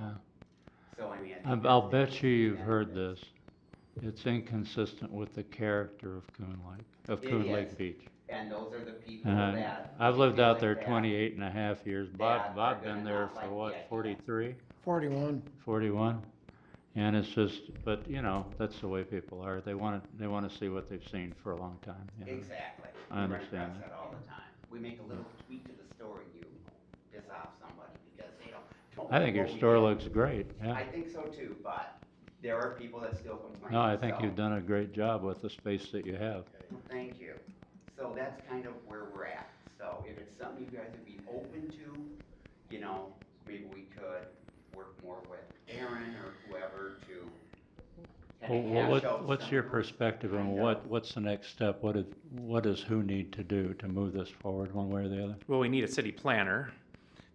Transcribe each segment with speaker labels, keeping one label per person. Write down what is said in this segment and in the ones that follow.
Speaker 1: um,
Speaker 2: I'll I'll bet you you've heard this. It's inconsistent with the character of Coon Lake, of
Speaker 1: It
Speaker 2: Coon Lake
Speaker 1: is.
Speaker 2: Beach.
Speaker 1: And those are the people
Speaker 2: And I-
Speaker 1: that.
Speaker 2: I've lived out there
Speaker 1: that.
Speaker 2: twenty-eight and a half years.
Speaker 1: That
Speaker 2: Bob,
Speaker 1: are
Speaker 2: Bob
Speaker 1: gonna
Speaker 2: been there
Speaker 1: not
Speaker 2: for
Speaker 1: like
Speaker 2: what,
Speaker 1: that.
Speaker 2: forty-three,
Speaker 3: Forty-one.
Speaker 2: forty-one? And it's just, but you know, that's the way people are. They wanna, they wanna see what they've seen for a long time, you know?
Speaker 1: Exactly.
Speaker 2: I
Speaker 1: We run
Speaker 2: understand
Speaker 1: across
Speaker 2: that.
Speaker 1: that all the time. We make a little tweak to the story, you piss off somebody because they don't. don't
Speaker 2: I think your
Speaker 1: know we
Speaker 2: store
Speaker 1: did.
Speaker 2: looks great,
Speaker 1: I
Speaker 2: yeah.
Speaker 1: think so too, but there are people that still complain.
Speaker 2: No, I think
Speaker 1: so-
Speaker 2: you've done a great job with the space that you have.
Speaker 1: Thank you. So that's kind of where we're at. So if it's something you guys would be open to, you know, maybe we could work more with Aaron or whoever to.
Speaker 2: Well,
Speaker 1: kinda
Speaker 2: wha-
Speaker 1: hash
Speaker 2: What,
Speaker 1: out
Speaker 2: what's your
Speaker 1: some-
Speaker 2: perspective on
Speaker 1: kind
Speaker 2: what, what's the next step? What is, what does who need to do to move this forward one way or the other?
Speaker 4: Well, we need a city planner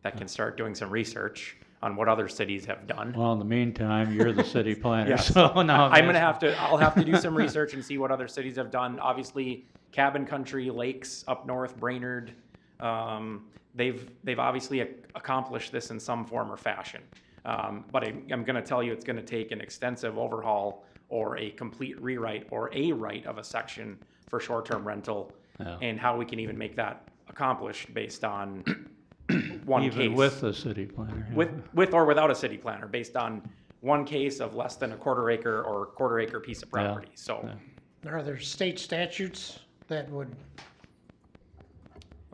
Speaker 4: that can start doing some research on what other cities have done.
Speaker 2: Well, in the meantime, you're the city planner,
Speaker 4: Yes.
Speaker 2: so now.
Speaker 4: I'm gonna have to, I'll have to do some research and see what other cities have done. Obviously, Cabin Country, Lakes up north, Brainerd, um, they've, they've obviously ac- accomplished this in some form or fashion. Um, but I, I'm gonna tell you, it's gonna take an extensive overhaul or a complete rewrite or a write of a section for short-term rental
Speaker 2: Yeah.
Speaker 4: and how we can even make that accomplished based on one case.
Speaker 2: Even with the city planner. yeah.
Speaker 4: With, with or without a city planner, based on one case of less than a quarter acre or quarter acre piece of
Speaker 2: Yeah,
Speaker 4: property, so.
Speaker 2: yeah.
Speaker 3: Are there state statutes that would,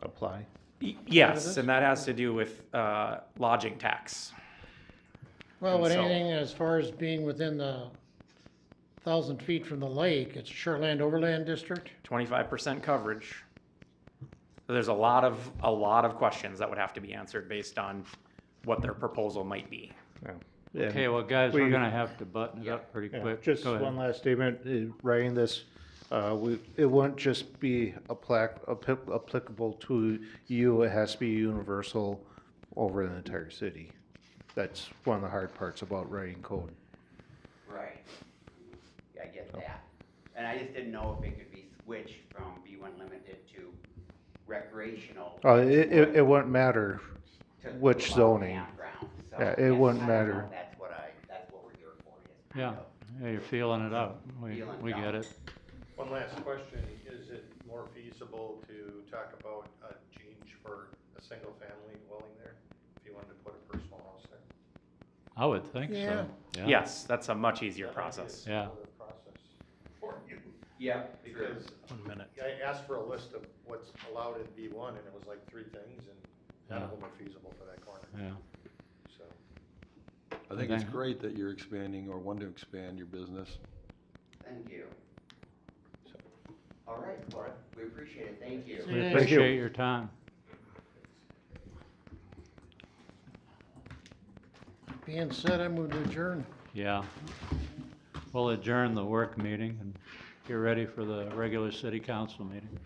Speaker 5: apply.
Speaker 4: Y- Yes, and that has to do with, uh, lodging tax.
Speaker 3: well, with
Speaker 4: And so-
Speaker 3: anything as far as being within the thousand feet from the lake, it's shoreland overland district?
Speaker 4: twenty-five percent coverage. There's a lot of, a lot of questions that would have to be answered based on what their proposal might be.
Speaker 2: Okay, well, guys, we're
Speaker 5: We-
Speaker 2: gonna have to button it up pretty
Speaker 5: Yeah,
Speaker 2: quick.
Speaker 5: Just
Speaker 2: Go ahead.
Speaker 5: one last statement, uh, writing this, uh, we, it wouldn't just be appla- appli- applicable to you, it has to be universal over the entire city. That's one of the hard parts about writing code.
Speaker 1: Right. Yeah, I get
Speaker 2: Oh.
Speaker 1: that. And I just didn't know if it could be switched from B one limited to recreational.
Speaker 5: Uh, it, it, it wouldn't matter,
Speaker 1: to
Speaker 5: which
Speaker 1: allow
Speaker 5: zoning.
Speaker 1: campground. So
Speaker 5: Yeah, it
Speaker 1: that's-
Speaker 5: wouldn't
Speaker 1: I don't know.
Speaker 5: matter.
Speaker 1: That's what I, that's what we're here for, is kind
Speaker 2: Yeah,
Speaker 1: of
Speaker 2: yeah, you're feeling it out. We,
Speaker 1: Feeling it
Speaker 2: we
Speaker 1: out.
Speaker 2: get it.
Speaker 6: One last question, is it more feasible to talk about a change for a single-family dwelling there? If you wanted to put a personal house there?
Speaker 2: I would think
Speaker 3: Yeah.
Speaker 2: so.
Speaker 4: Yes, that's a much easier process.
Speaker 2: Yeah.
Speaker 6: Sort of Process for you,
Speaker 1: Yeah, true.
Speaker 6: because
Speaker 4: One minute.
Speaker 6: I asked for a list of what's allowed in B one, and it was like three things, and none of them are feasible for that corner,
Speaker 2: Yeah.
Speaker 6: so.
Speaker 7: I think it's
Speaker 2: Okay.
Speaker 7: great that you're expanding or want to expand your business.
Speaker 1: Thank you. All right, well, we appreciate it, thank you.
Speaker 2: We
Speaker 3: Yeah.
Speaker 5: Thank you.
Speaker 2: appreciate your time.
Speaker 3: Being said, I move to adjourn.
Speaker 2: Yeah. We'll adjourn the work meeting and get ready for the regular city council meeting.